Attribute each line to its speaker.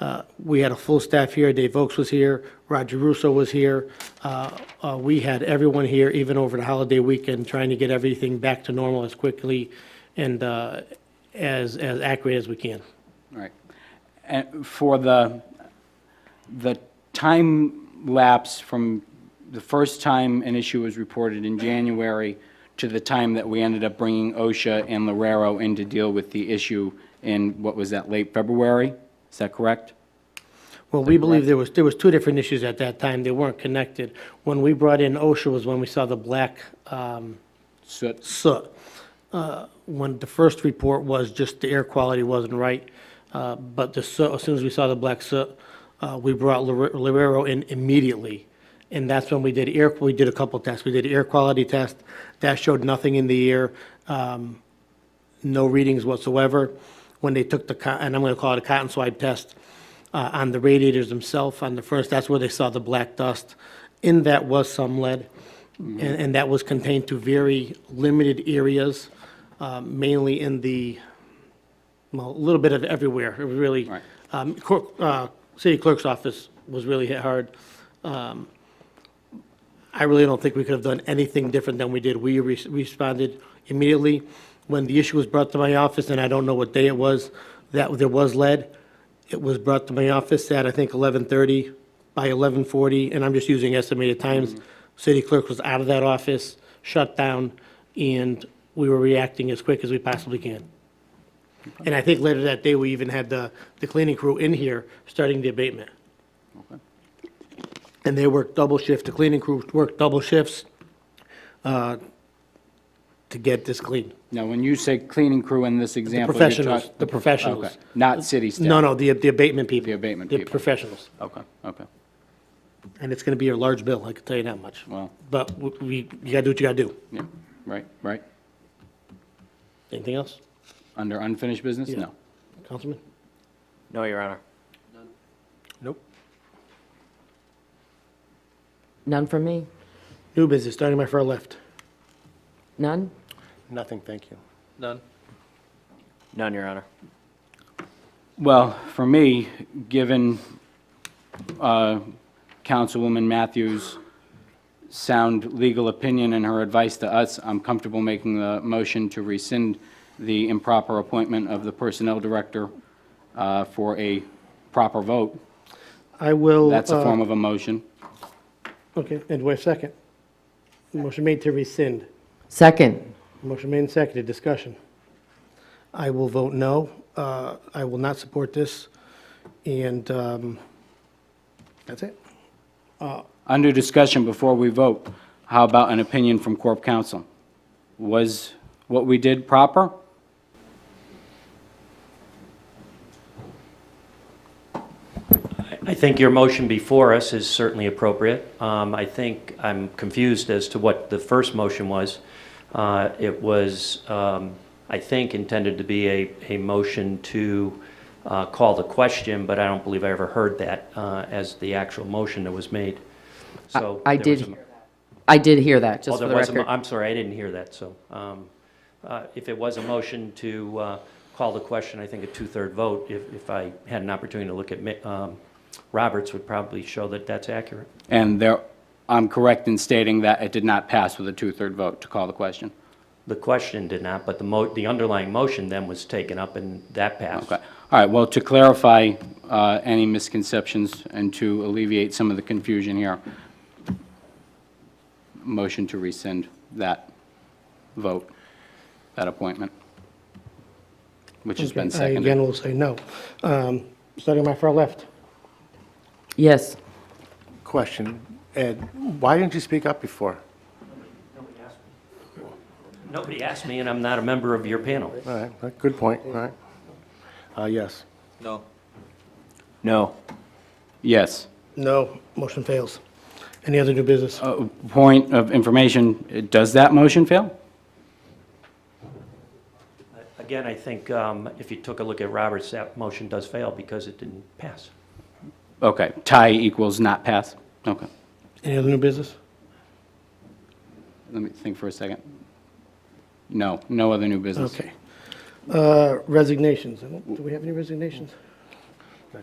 Speaker 1: Uh, We had a full staff here, Dave Oakes was here, Roger Russo was here. Uh, uh, We had everyone here, even over the holiday weekend, trying to get everything back to normal as quickly and uh, as, as accurate as we can.
Speaker 2: Right. And for the, the time lapse from the first time an issue was reported in January to the time that we ended up bringing OSHA and Lorero in to deal with the issue in, what was that, late February? Is that correct?
Speaker 1: Well, we believe there was, there was two different issues at that time, they weren't connected. When we brought in OSHA was when we saw the black um,
Speaker 2: So,
Speaker 1: soot. Uh, When the first report was just the air quality wasn't right, uh, but the soot, as soon as we saw the black soot, uh, we brought Lor- Lorero in immediately. And that's when we did air, we did a couple tests. We did air quality test, that showed nothing in the air, um, no readings whatsoever. When they took the, co- and I'm going to call it a cotton swab test, uh, on the radiators themselves, on the first, that's where they saw the black dust. In that was some lead, and, and that was contained to very limited areas, uh, mainly in the, well, a little bit of everywhere, it was really.
Speaker 2: Right.
Speaker 1: Um, cor- uh, city clerk's office was really hit hard. Um, I really don't think we could have done anything different than we did. We re- responded immediately. When the issue was brought to my office, and I don't know what day it was, that there was lead, it was brought to my office at, I think, 11:30 by 11:40, and I'm just using estimated times. City clerk was out of that office, shut down, and we were reacting as quick as we possibly can. And I think later that day, we even had the, the cleaning crew in here starting the abatement. And they worked double shift, the cleaning crew worked double shifts uh, to get this clean.
Speaker 2: now, when you say cleaning crew in this example, you're talking...
Speaker 1: Professionals, the professionals.
Speaker 2: Okay, not city staff?
Speaker 1: No, no, the, the abatement people.
Speaker 2: The abatement
Speaker 1: The
Speaker 2: people.
Speaker 1: professionals.
Speaker 2: Okay, okay,
Speaker 1: And it's going to be a large bill, I can tell you that much.
Speaker 2: Wow.
Speaker 1: But we- we, you got to do what you got to do.
Speaker 2: yeah, right, right.
Speaker 1: Anything else,
Speaker 2: Under unfinished business?
Speaker 1: Yeah.
Speaker 2: No.
Speaker 1: Councilman?
Speaker 3: No, Your Honor.
Speaker 1: Nope.
Speaker 3: None from me?
Speaker 1: New business, starting my far left.
Speaker 3: None?
Speaker 1: Nothing, thank you.
Speaker 3: None. None, Your Honor.
Speaker 2: Well, for me, given uh, Councilwoman Matthews' sound legal opinion and her advice to us, I'm comfortable making the motion to rescind the improper appointment of the Personnel Director uh, for a proper vote.
Speaker 1: I will.
Speaker 2: That's a
Speaker 1: uh,
Speaker 2: form of a motion.
Speaker 1: Okay, and wait a second. Motion made to rescind.
Speaker 3: Second.
Speaker 1: Motion made and seconded, discussion. I will vote no. Uh, I will not support this, and um, that's it.
Speaker 2: Under discussion, before we vote, how about an opinion from Corp Counsel? Was what we did proper?
Speaker 4: I think your motion before us is certainly appropriate. Um, I think I'm confused as to what the first motion was. Uh, It was, um, I think, intended to be a, a motion to uh, call the question, but I don't believe I ever heard that uh, as the actual motion that was made. So
Speaker 3: I
Speaker 4: there
Speaker 3: did
Speaker 4: was a-
Speaker 3: hear I did hear that,
Speaker 4: Oh,
Speaker 3: just for
Speaker 4: there
Speaker 3: the
Speaker 4: was a mo-
Speaker 3: record.
Speaker 4: I'm sorry, I didn't hear that, so. um, uh, If it was a motion to uh, call the question, I think a two-third vote, if, if I had an opportunity to look at mi- um, Roberts, would probably show that that's accurate.
Speaker 2: And there, I'm correct in stating that it did not pass with a two-third vote to call the question.
Speaker 4: The question did not, but the mo, the underlying motion then was taken up and that passed.
Speaker 2: Okay. All right, well, to clarify uh, any misconceptions and to alleviate some of the confusion here, motion to rescind that vote, that appointment, which has been
Speaker 1: I again
Speaker 2: seconded.
Speaker 1: will say no. Um, Starting my far left.
Speaker 3: Yes.
Speaker 5: Question, Ed, why didn't you speak up before?
Speaker 4: Nobody asked me, and I'm not a member of your panel.
Speaker 5: All right, good point, all right. Uh, yes.
Speaker 3: No.
Speaker 2: Yes.
Speaker 1: No, motion fails. Any other new business?
Speaker 2: Uh, Point of information, does that motion fail?
Speaker 4: Again, I think um, if you took a look at Roberts, that motion does fail because it didn't pass.
Speaker 2: Okay, tie equals not pass? Okay,
Speaker 1: Any other new business?
Speaker 2: let me think for a second. No, no other new business.
Speaker 1: Okay. Uh, Resignations. Do we have any resignations?